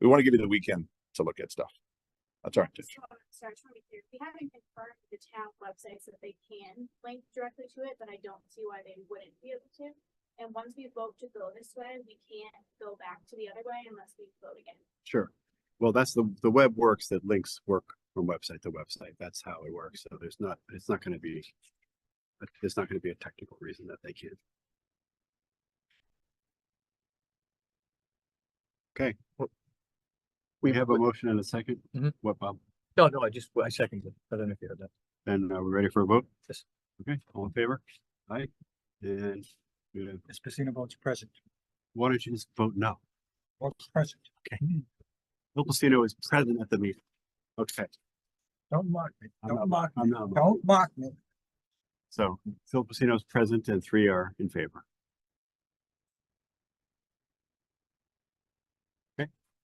We want to give you the weekend to look at stuff. That's our intention. So, Sorry, just want to be clear, we haven't confirmed with the town websites that they can link directly to it, but I don't see why they wouldn't be able to. And once we vote to go this way, we can't go back to the other way unless we vote again. Sure. Well, that's the, the web works that links work from website to website. That's how it works. So there's not, it's not gonna be. There's not gonna be a technical reason that they can't. Okay. well, We have a Mm-hmm. motion and a second. Mhm. What, Bob? No, no, I just, I second it. I don't know if you heard that. Then are we ready for a vote? Yes. Okay, all in favor? Aye. And uh, Ms. Pacino votes present. why don't you just vote no? Votes present. Bill Pacino is present at the meeting. Okay. Don't mock me. I'm Don't not- mock me. I'm not. Don't mock me. So Phil Pacino is present and three are in favor.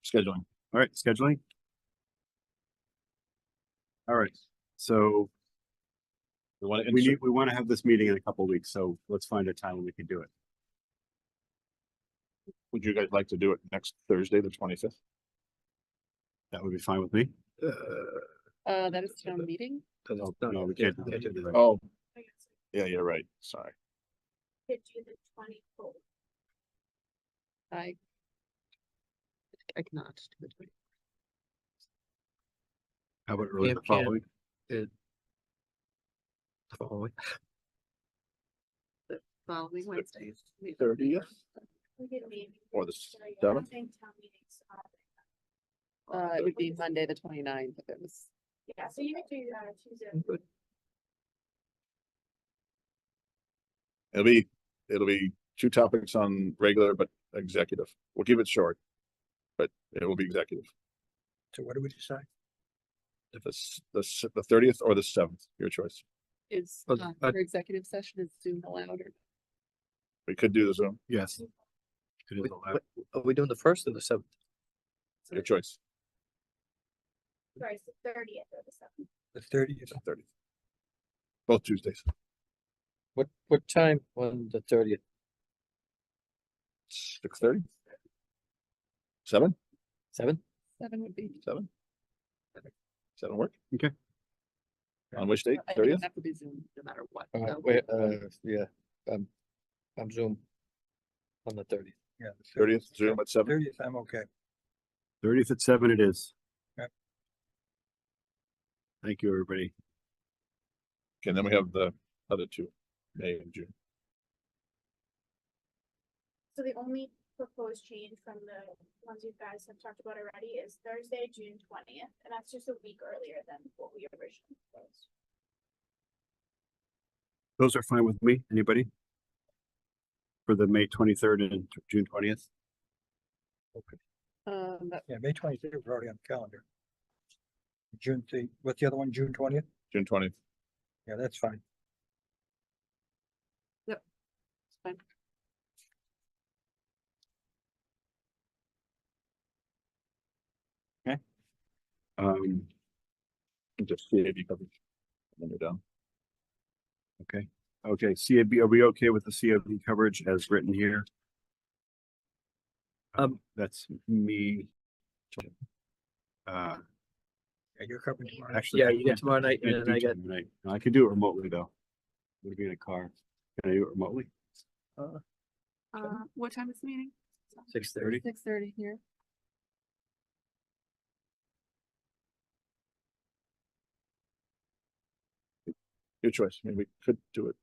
Scheduling. All right, scheduling. All right, so We want we to, need, we want to have this meeting in a couple weeks, so let's find a time when we can do it. would you guys like to do it next Thursday, the twenty-fifth? That would be fine with me. Uh, that is town meeting? No, Oh, no, we can't. do that. Oh, I guess yeah, you're right. Sorry. we Could do the twenty-fourth. I. I cannot do it. How about early Yeah, the can't. following? Following Wednesdays. we- We could maybe. Or the Sorry, I seventh? don't think town meetings are that Uh, long. it would be Monday, the 29th. if it was, Yeah, so you could do, uh, Tuesday. It'll be, it'll be two topics on regular, but executive. We'll keep it short. But it will be executive. So what do we decide? If it's the, s- the thirtieth or the seventh, your choice. is, Uh, uh, uh, for executive session is Zoom allowed or? We could do the Zoom, Yes. It is Wait, allowed. what- Are we doing the first or the seventh? your choice, Sorry, it's the thirtieth or the seventh. The thirtieth. thirtieth. Both Tuesdays. What, what time on the thirtieth? Six thirty? Seven, Seven? Seven would be. seven? Seven work? Okay. On which date? I think it would Thirtieth? have to be Zoom no matter what. Uh, so- wait, uh, yeah, um, I'm Zoom. On the thirtieth. Yeah. Thirtieth, Zoom at seven? Thirtieth, I'm okay. Thirtieth at seven it is. Yep. Thank you, everybody. Okay, And then we have the other two, May and June. So the only proposed change from the ones you guys have talked about already is Thursday, June twentieth, and that's just a week earlier than what we originally proposed. Those are fine with me. Anybody? For the May twenty-third and t- June twentieth? Um, that- Yeah, May twenty-third, we're already on the calendar. June the, what's the other one? June twentieth? June twentieth. Yeah, that's fine. that's fine. Um, Just CAB coverage. And then you're done. Okay, CAB, are we okay with the CAB coverage as written here? Um, that's me. Uh, Yeah, you're covering tomorrow. actually. I can't- tomorrow night can't do tomorrow night. No, I could do it remotely though. Would be in a car. Can I do it remotely? Uh, what time is the meeting? Six Thirty? Six thirty here. Your choice. I mean, we could do it.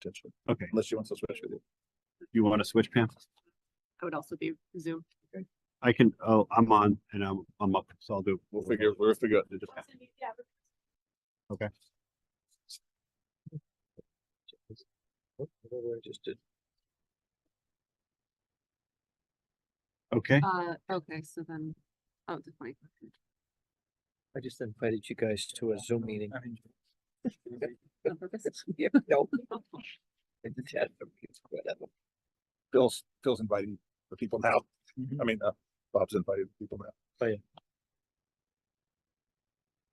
Potentially, Okay, unless she wants to switch with you. you want to switch Pam? I would also be Zoom. I can, oh, I'm on and I'm, I'm up, so I'll do. it. We'll figure, we'll figure out. Also, you- Yeah, but Whatever I just did. Okay, Uh, okay, so then, oh, the twenty. I just invited you guys to a Zoom meeting. I mean, On purpose? Yeah, no. I did that for me, it's whatever. Phil's, Phil's inviting the people now. I mean, uh, Bob's invited the people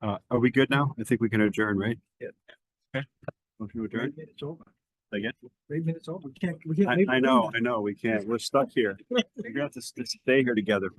now. uh, are we good now? I think we can adjourn, right? Yeah. Okay, motion to adjourn. It's over. Say again? Eight minutes over. We can't, we can't. I, leave I it in know, there. I know, we can't, we're stuck here. We're gonna have to s- stay here together.